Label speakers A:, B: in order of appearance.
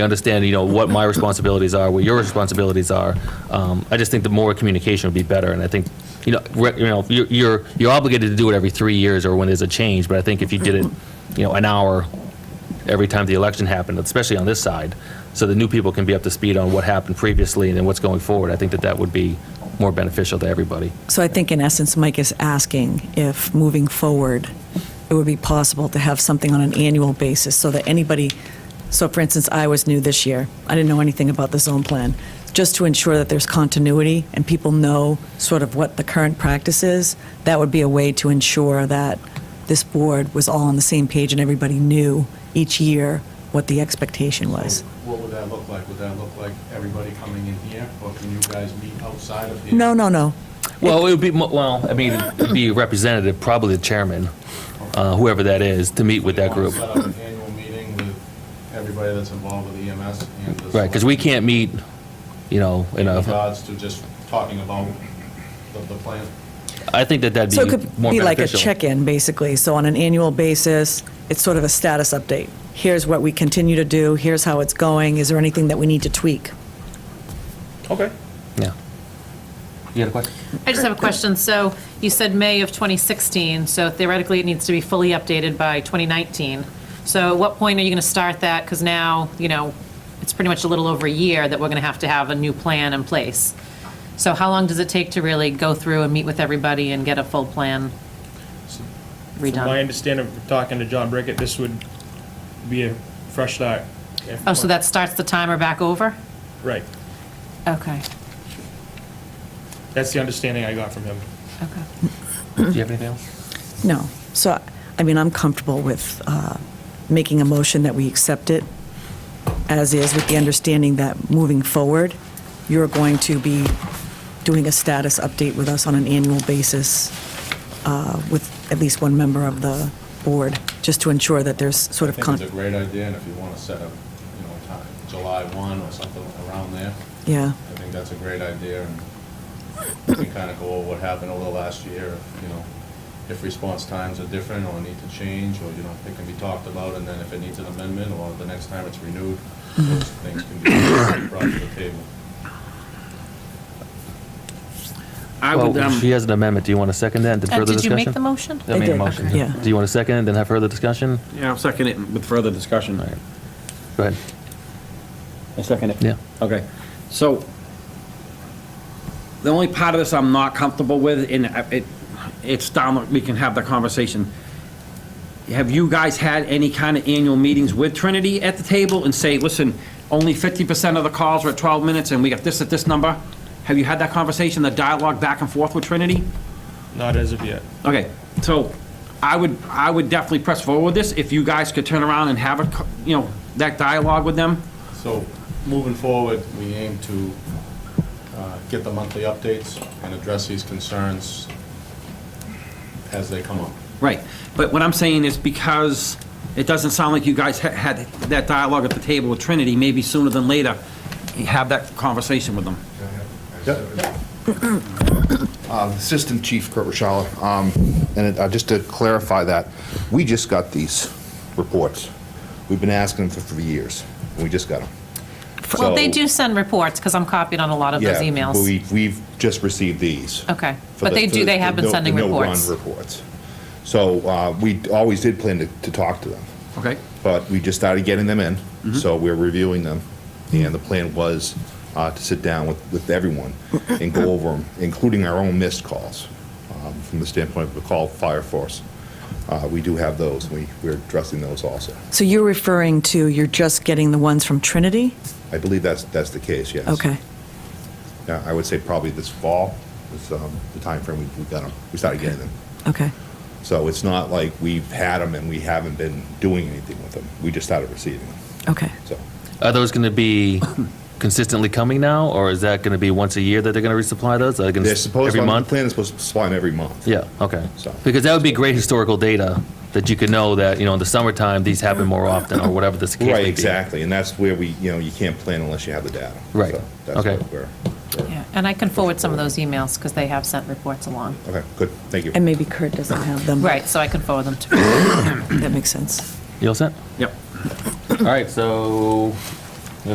A: understand, you know, what my responsibilities are, what your responsibilities are. Um, I just think the more communication would be better, and I think, you know, re- you know, you're- you're, you're obligated to do it every three years or when there's a change, but I think if you did it, you know, an hour every time the election happened, especially on this side, so the new people can be up to speed on what happened previously and then what's going forward, I think that that would be more beneficial to everybody.
B: So I think in essence, Mike is asking if moving forward, it would be possible to have something on an annual basis so that anybody, so for instance, I was new this year. I didn't know anything about the zone plan. Just to ensure that there's continuity and people know sort of what the current practice is, that would be a way to ensure that this board was all on the same page and everybody knew each year what the expectation was.
C: What would that look like? Would that look like everybody coming in here, or can you guys meet outside of here?
B: No, no, no.
A: Well, it would be, mo- well, I mean, it'd be a representative, probably the chairman, uh, whoever that is, to meet with that group.
C: Set up an annual meeting with everybody that's involved with EMS and the.
A: Right, because we uh, can't meet, you know, in
C: In
A: a,
C: regards to just talking about the, the plan.
A: I think that that'd
B: So it
A: be
B: could
A: more
B: be like a
A: beneficial.
B: check-in, basically. So on an annual basis, it's sort of a status update. Here's what we continue to do, here's how it's going, is there anything that we need to tweak?
A: Okay. Yeah. You got a question?
D: I just have a question. So you said May of 2016, so theoretically it needs to be fully updated by 2019. So at what point are you going to start that? Because now, you know, it's pretty much a little over a year that we're going to have to have a new plan in place. So how long does it take to really go through and meet with everybody and get a full plan
E: From my
D: redone?
E: understanding of talking to John Brickett, this would be a fresh start. if-
D: Oh, so that starts the timer back over?
E: Right.
D: Okay,
E: That's the understanding I got from him.
D: okay.
A: Do you have anything else?
B: No. So, I mean, I'm comfortable with uh, making a motion that we accept it as is, with the understanding that moving forward, you're going to be doing a status update with us on an annual basis uh, with at least one member of the board, just to ensure that there's sort
C: I
B: of,
C: think
B: con-
C: it's a great idea, and if you want to set up, you know, time, July 1 or something around there,
B: yeah.
C: I think that's a great idea, and we can kind of go over what happened over the last year, you know, if response times are different or need to change, or, you know, it can be talked about, and then if it needs an amendment, or the next time it's renewed, those things can be brought to the table.
F: I would,
A: Well, she
F: um,
A: has an amendment. Do you want to second that and
D: Uh,
A: further
D: Did you
A: discussion?
D: make the motion?
A: I made a
B: did.
A: motion.
B: Okay. Yeah.
A: Do you want to second and then have further discussion?
F: yeah, I'll second it with further discussion.
A: All right. Go ahead.
F: I second it.
A: Yeah.
F: Okay, so the only part of this I'm not comfortable with, and I- it, it's down, we can have the conversation. Have you guys had any kind of annual meetings with Trinity at the table and say, listen, only 50% of the calls are at 12 minutes and we got this at this number? Have you had that conversation, the dialogue back and forth with Trinity?
E: Not as of yet.
F: Okay, so I would, I would definitely press forward with this if you guys could turn around and have a, co- you know, that dialogue with them.
C: So, moving forward, we aim to uh, get the monthly updates and address these concerns as they come up.
F: Right, but what I'm saying is because it doesn't sound like you guys ha- had that dialogue at the table with Trinity, maybe sooner than later, you have that conversation with them.
G: Uh, Assistant Chief Kurt Rashalla, um and it- uh, just to clarify that, we just got these reports. We've been asking them for for years. We just got them.
D: Well,
G: So-
D: they do send reports, because I'm copied on a lot of those
G: Yeah,
D: emails.
G: but we- We've just received these.
D: Okay,
G: for
D: but
G: the-
D: they
G: for
D: do,
G: the-
D: they have
G: the
D: been
G: no-
D: sending
G: the
D: reports.
G: No-run reports. So uh, we always did plan to- to talk to them,
F: Okay.
G: but we just started getting them in,
B: Mm-hmm.
G: so we're reviewing them. And the plan was uh, to sit down with with everyone and go over them, including our own missed calls, um, from the standpoint of the call fire force. Uh, We do have those, we- we're addressing those also.
B: So you're referring to, you're just getting the ones from Trinity?
G: I believe that's, that's the case, yes.
B: Okay.
G: Yeah, I would say probably this fall is um, the timeframe we we got them, we started getting them.
B: Okay.
G: So it's not like we've had them and we haven't been doing anything with them. We just started receiving them,
B: Okay.
G: so.
A: Are those going to be consistently coming now, or is that going to be once a year that they're going to resupply those? Are they gonna
G: They're
A: s-
G: supposed,
A: every
G: the
A: month?
G: plan is supposed to supply them every month.
A: Yeah, okay.
G: So-
A: Because that would be great historical data that you could know that, you know, in the summertime, these happen more often or whatever this case may be.
G: Right, exactly, and that's where we, you know, you can't plan unless you have the data.
A: Right.
G: So that's
A: Okay.
G: what we're- we're-
D: Yeah, And I can forward some of those emails, because they have sent reports along.
G: Okay, good, thank you.
B: And maybe Kurt doesn't have them.
D: Right, so I can forward them to.
B: That makes sense.
A: You all set?
F: Yep.
A: All right, so